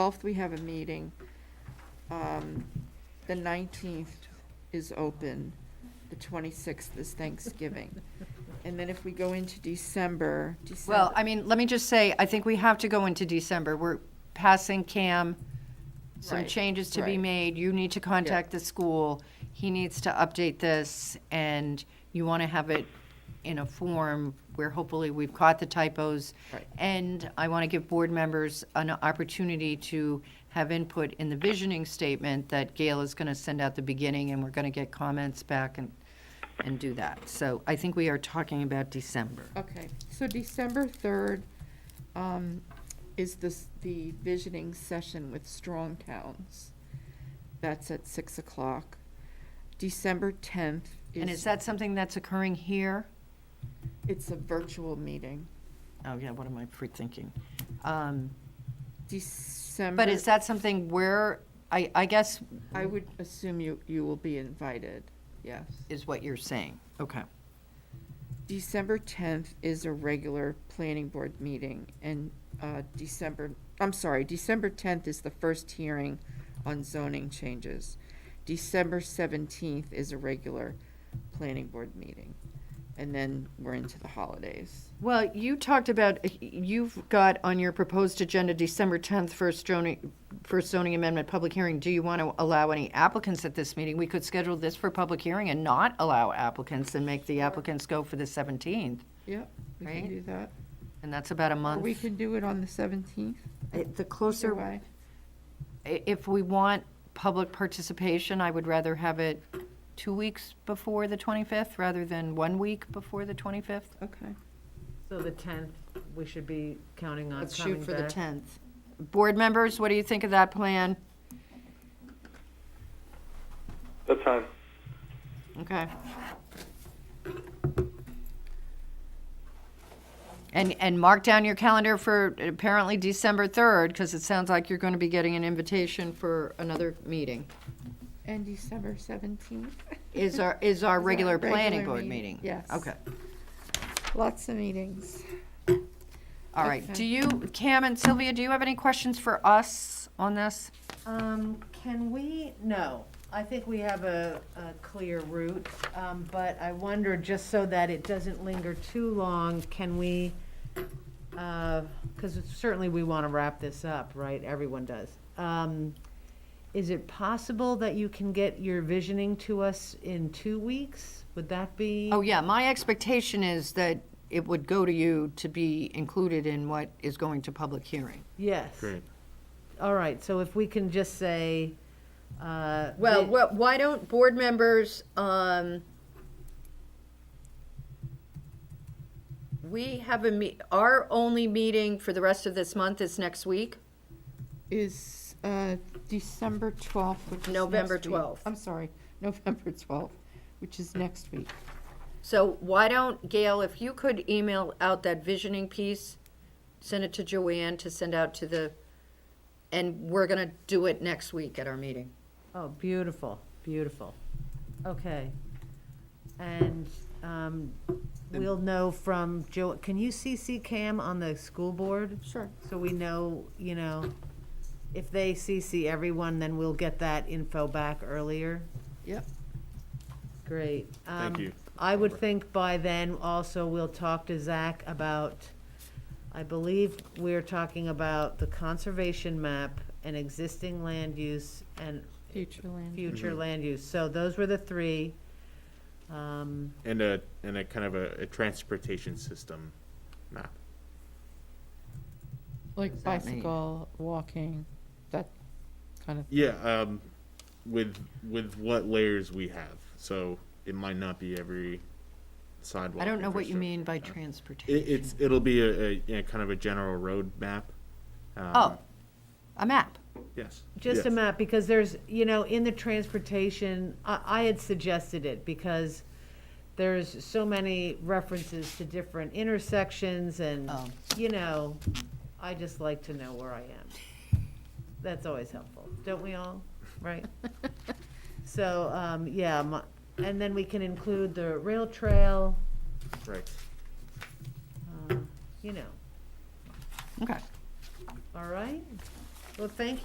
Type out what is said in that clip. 12th, we have a meeting. Um, The 19th is open. The 26th is Thanksgiving. And then if we go into December, Well, December, I mean, let me just say, I think we have to go into December. We're passing CAM, some Right, changes to be right. made. You need to contact the school. He needs to update this, and you want to have it in a form where hopefully we've caught the typos. Right. And I want to give board members an opportunity to have input in the visioning statement that Gail is going to send out the beginning, and we're going to get comments back and, and do that. So I think we are talking about December. okay, so December 3rd um, is this, the visioning session with Strong Towns. That's at 6 o'clock. December 10th And is is, that something that's occurring here? it's a virtual meeting. Oh, yeah, what am I pre-thinking? Um, December. But is that something where, I, I guess, I would assume you, you will be invited, yes. is what you're saying? Okay. December tenth is a regular planning board meeting, and, uh, December, I'm sorry, December tenth is the first hearing on zoning changes. December seventeenth is a regular planning board meeting, and then we're into the holidays. Well, you talked about, uh, you've got on your proposed agenda December 10th, first zoning, first zoning amendment public hearing. Do you want to allow any applicants at this meeting? We could schedule this for public hearing and not allow applicants and make the applicants go for the 17th. Yep, we can Right. do that. And that's about a Or month. Oh, we can do it on the seventeenth, It- either The closer, way. i- if we want public participation, I would rather have it two weeks before the 25th rather than one week before the 25th. Okay. So the tenth, we should be counting on Let's shoot coming back. for the 10th. Board members, what do you think of that plan? That's fine. Okay. And, and mark down your calendar for apparently December 3rd, because it sounds like you're going to be getting an invitation for another meeting. And December seventeenth, Is our, is our our regular planning regular board meeting, meeting? yes. Okay. lots of meetings. All right, Okay. do you, Cam and Sylvia, do you have any questions for us on this? Um, can we, no, I think we have a, a clear route, um, but I wonder, just so that it doesn't linger too long, can we, uh, cause it's- certainly we wanna wrap this up, right, everyone does. Um, is it possible that you can get your visioning to us in two weeks? Would that be? Oh, yeah, my expectation is that it would go to you to be included in what is going to public hearing. Yes. Great. All right, so if we can just say, uh. Well, vi- wh- why don't board members, um, we have a me, our only meeting for the rest of this month is next week. is uh, December 12th, which is November next week. 12th. I'm sorry, November 12th, which is next week. So why don't, Gail, if you could email out that visioning piece, send it to Joanne to send out to the, and we're gonna do it next week at our meeting. Oh, beautiful, beautiful. Okay. And um, we'll know from Joe, can you CC Cam on the school board? Sure. So we know, you know, if they CC everyone, then we'll get that info back earlier. Yep. Great. Thank Um, you, I would think by then also we'll talk to Zach about, I believe we're talking about the conservation map and existing land use and Future land. Mm-hmm. future land use. So those were the three. Um, and a and a kind of a, a transportation system map. Like that mean? bicycle, walking, that kind of, Yeah, um, with with what layers we have, so it might not be every sidewalk. I don't know what you infrastructure. mean by Yeah. transportation. It, it's it'll be a, a yeah, kind of a general road map. Um, Oh, a map. yes, Just a yes. map, because there's, you know, in the transportation, I, I had suggested it because there's so many references to different intersections and, Oh. you know, I just like to know where I am. That's always helpful, don't we all, right? So, um, yeah, my, and then we can include the rail trail, Right. uh, you know, Okay. all right? Well, thank